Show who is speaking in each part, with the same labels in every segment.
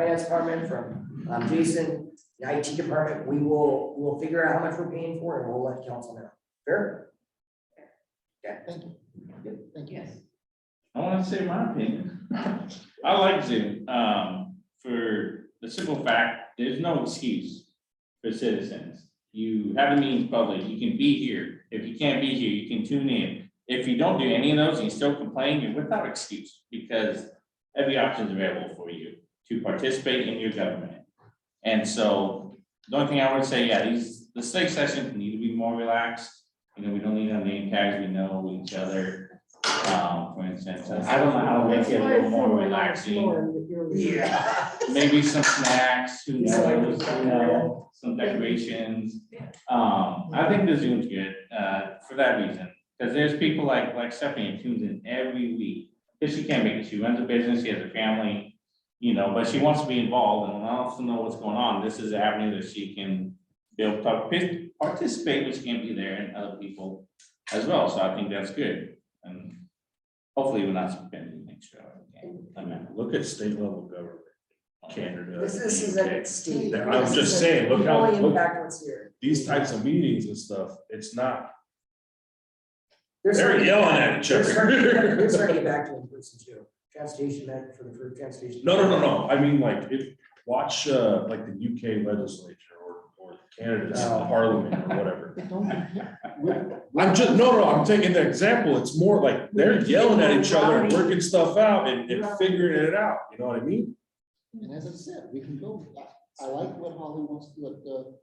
Speaker 1: finance department, from, um, Jason, the IT department, we will, we'll figure out how much we're paying for and we'll let council know. Fair? Yeah, thank you. Good, thank you.
Speaker 2: Yes.
Speaker 3: I want to say my opinion. I like Zoom, um, for the simple fact, there's no excuse for citizens. You have a meeting public, you can be here. If you can't be here, you can tune in. If you don't do any of those, and you still complain, you're without excuse because every option is available for you to participate in your government. And so the only thing I would say, yeah, these, the study sessions need to be more relaxed. You know, we don't need to have name tags, we know each other um, for instance, I don't know how to make it a little more relaxing,
Speaker 1: Yeah.
Speaker 3: maybe some snacks, who
Speaker 1: Yeah, like
Speaker 3: knows,
Speaker 1: the-
Speaker 3: you know, some decorations. Um, I think the Zoom's good, uh, for that reason, because there's people like, like Stephanie tunes in every week. Because she can't make it, she runs a business, she has a family, you know, but she wants to be involved and wants to know what's going on, this is an avenue that she can be able to participate, which can be there and other people as well, so I think that's good. And Hopefully, we're not spending extra. on it. I mean,
Speaker 4: Look at state level government, Canada.
Speaker 1: This, this is
Speaker 4: UK.
Speaker 1: a Steve.
Speaker 4: I
Speaker 1: this
Speaker 4: was
Speaker 1: is
Speaker 4: just
Speaker 1: a-
Speaker 4: saying, look
Speaker 1: you
Speaker 4: how-
Speaker 1: only
Speaker 4: look-
Speaker 1: Impact what's here.
Speaker 4: These types of meetings and stuff, it's not,
Speaker 1: There's
Speaker 4: they're
Speaker 1: certain-
Speaker 4: yelling at each
Speaker 1: They're starting to get-
Speaker 4: other.
Speaker 1: they're starting to get back to in person too. Transportation back for the, for transportation.
Speaker 4: No, no, no, no, I mean, like, if, watch, uh, like the UK legislature or, or Canada's
Speaker 1: No.
Speaker 4: parliament or whatever. I'm just, no, no, I'm taking the example, it's more like they're yelling at each other and working stuff out and, and figuring it out, you know what I mean?
Speaker 5: And as I said, we can go, I, I like what Holly wants, what the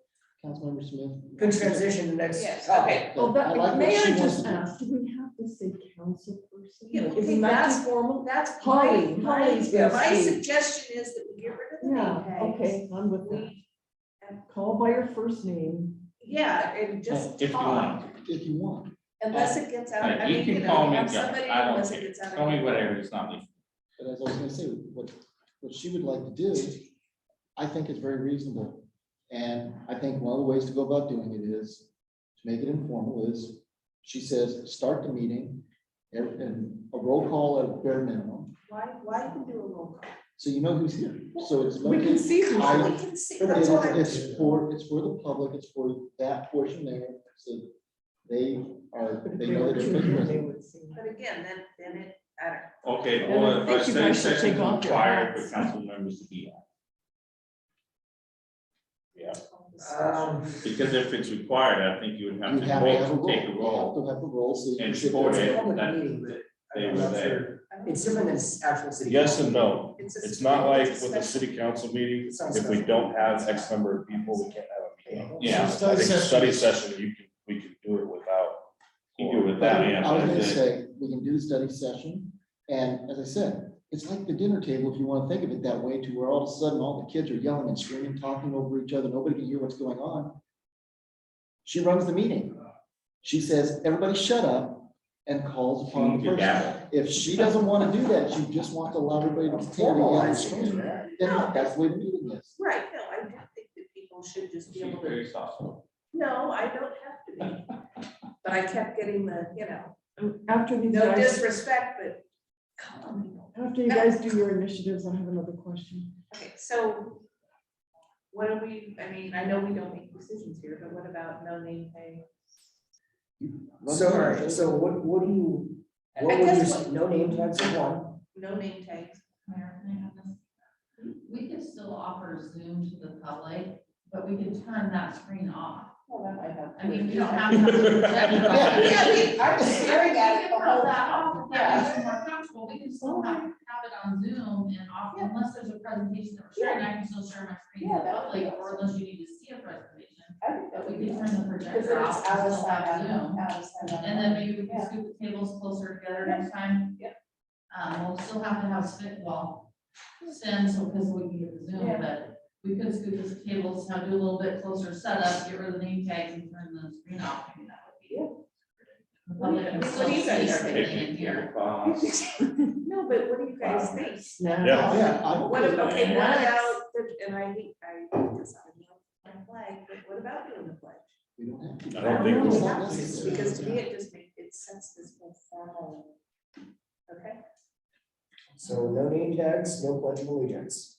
Speaker 5: councilmember Smith.
Speaker 1: Good transition to next
Speaker 2: Yes.
Speaker 1: topic.
Speaker 5: I
Speaker 6: Well,
Speaker 5: like
Speaker 6: Oh, but
Speaker 5: what
Speaker 6: Mayor
Speaker 5: she wants
Speaker 6: just
Speaker 5: to do.
Speaker 6: asked, do we have to say council person?
Speaker 2: Yeah,
Speaker 6: Like, Isn't that
Speaker 2: that's-
Speaker 6: too formal?
Speaker 2: That's
Speaker 6: Holly,
Speaker 2: my, my,
Speaker 6: Holly's gonna
Speaker 2: my
Speaker 6: speak.
Speaker 2: suggestion is that we get rid of the name
Speaker 6: Yeah,
Speaker 2: tags.
Speaker 6: okay, I'm with that.
Speaker 2: We,
Speaker 6: Call by your first name.
Speaker 2: yeah, and just
Speaker 3: If you
Speaker 2: talk,
Speaker 3: want,
Speaker 5: If you want.
Speaker 2: unless it gets out,
Speaker 3: Yeah,
Speaker 2: I
Speaker 3: you
Speaker 2: mean,
Speaker 3: can
Speaker 2: you
Speaker 3: call
Speaker 2: know,
Speaker 3: me
Speaker 2: have
Speaker 3: Jeff,
Speaker 2: somebody
Speaker 3: I don't
Speaker 2: unless it
Speaker 3: care.
Speaker 2: gets out. of
Speaker 3: tell me
Speaker 2: hand.
Speaker 3: whatever, it's not me.
Speaker 5: But as I was gonna say, what, what she would like to do, I think is very reasonable. And I think one of the ways to go about doing it is, to make it informal, is, she says, start the meeting, and and a roll call at a bare minimum,
Speaker 2: Why, why you can do a roll call?
Speaker 5: so you know who's here. So it's.
Speaker 6: We can see who's
Speaker 5: I-
Speaker 2: Well, we can see,
Speaker 5: It-
Speaker 2: that's why,
Speaker 5: It's for, it's for the public, it's for that portion there, so they are, they know that they're present.
Speaker 2: but again, then, then it, I don't.
Speaker 3: Okay,
Speaker 6: And I
Speaker 3: well, if
Speaker 6: think
Speaker 3: I
Speaker 6: you
Speaker 3: say
Speaker 6: guys should
Speaker 3: session
Speaker 6: take off your
Speaker 3: required for
Speaker 6: hats.
Speaker 3: council members to be on,
Speaker 1: Um,
Speaker 3: because if it's required, I think you would have
Speaker 5: You
Speaker 3: to
Speaker 5: have to have a
Speaker 3: vote,
Speaker 5: role, you
Speaker 3: take
Speaker 5: have
Speaker 3: a
Speaker 5: to
Speaker 3: role.
Speaker 5: have a role, so. you
Speaker 3: and
Speaker 5: sit
Speaker 3: support
Speaker 5: there.
Speaker 1: it's a
Speaker 3: it.
Speaker 1: public
Speaker 3: that
Speaker 1: meeting, but
Speaker 3: they
Speaker 1: I'm
Speaker 3: were
Speaker 1: not
Speaker 3: there.
Speaker 1: sure. It's different than s- actual city.
Speaker 4: Yes and
Speaker 1: council.
Speaker 4: no,
Speaker 2: a-
Speaker 4: it's not like with a
Speaker 2: special-
Speaker 4: city council meeting,
Speaker 1: It's not
Speaker 4: if we
Speaker 1: special.
Speaker 4: don't have X number of people, we can't have a meeting.
Speaker 3: Yeah,
Speaker 4: I
Speaker 5: Study
Speaker 4: think
Speaker 5: session.
Speaker 4: study session, you can, we can do it without.
Speaker 3: you do it with that, yeah.
Speaker 5: I was
Speaker 3: but
Speaker 5: gonna
Speaker 3: the-
Speaker 5: say, we can do the study session, and as I said, it's like the dinner table, if you wanna think of it that way, to where all of a sudden, all the kids are yelling and screaming, talking over each other, nobody can hear what's going on. She runs the meeting. She says, everybody shut up, and calls upon the
Speaker 3: You
Speaker 5: person.
Speaker 3: got it.
Speaker 5: If she doesn't wanna do that, you just want to allow everybody to tear the yell and
Speaker 1: Formalizing
Speaker 5: scream,
Speaker 1: it.
Speaker 5: then that's the way the meeting is.
Speaker 2: Right, no, I don't think that people should just be
Speaker 3: She's
Speaker 2: able to
Speaker 3: very soft.
Speaker 2: No, I don't have to be. But I kept getting the, you know,
Speaker 6: After these
Speaker 2: no
Speaker 6: guys,
Speaker 2: disrespect, but come on. you know.
Speaker 6: after you guys do your initiatives, I have another question.
Speaker 2: Okay, so what do we, I mean, I know we don't make decisions here, but what about no name tag?
Speaker 1: So, all right, so what, what do you,
Speaker 2: I
Speaker 1: what would you,
Speaker 2: guess
Speaker 1: s- no name tags are one,
Speaker 2: No name tags.
Speaker 7: Mayor, can I have this? We could still offer Zoom to the public, but we could turn that screen off.
Speaker 2: Well, that might help.
Speaker 7: I mean, we don't have. to have it projected on.
Speaker 5: Yeah,
Speaker 7: We
Speaker 2: Yeah, we- I'm
Speaker 7: could
Speaker 2: staring at it the
Speaker 7: turn
Speaker 2: whole
Speaker 7: that
Speaker 2: time.
Speaker 7: off if that makes you more comfortable. We can still have, have it on Zoom and off, unless there's a presentation that we're sharing, I can still share my screen
Speaker 2: Yeah,
Speaker 7: with the
Speaker 2: that would be
Speaker 7: public, or
Speaker 2: awesome.
Speaker 7: unless you need to see a presentation.
Speaker 2: I think that
Speaker 7: But we
Speaker 2: would be.
Speaker 7: could turn the
Speaker 2: Because
Speaker 7: projector
Speaker 2: then it's
Speaker 7: off
Speaker 2: out
Speaker 7: and
Speaker 2: of
Speaker 7: still
Speaker 2: sight, out
Speaker 7: have
Speaker 2: of-
Speaker 7: Zoom.
Speaker 2: out of sight, out of
Speaker 7: And then maybe we can
Speaker 2: Yeah.
Speaker 7: scoop the tables closer together next time.
Speaker 2: Yeah.
Speaker 7: Um, we'll still have to have spit wall since, because we can get the Zoom,
Speaker 2: Yeah.
Speaker 7: but we could scoop the tables, now do a little bit closer setup, get rid of the name tags and turn the screen off, maybe that would be. The public can
Speaker 2: What do
Speaker 7: still
Speaker 2: you
Speaker 7: see
Speaker 2: guys think?
Speaker 7: everything in here.
Speaker 3: Boss.
Speaker 2: No, but what do you guys think?
Speaker 6: Now.
Speaker 4: Yeah.
Speaker 5: Yeah, I'm
Speaker 2: What,
Speaker 5: okay with
Speaker 2: ab-
Speaker 5: that.
Speaker 2: okay, what
Speaker 6: Yes.
Speaker 2: about, the- and I hate, I hate this, I know, my flag, but what about doing the pledge?
Speaker 5: We don't have to.
Speaker 4: I don't think
Speaker 5: It's
Speaker 4: we-
Speaker 5: not
Speaker 2: It's
Speaker 5: necessary.
Speaker 2: Because to me, it just makes, it sets this whole formal. Okay,
Speaker 1: so no name tags, no pledge of allegiance.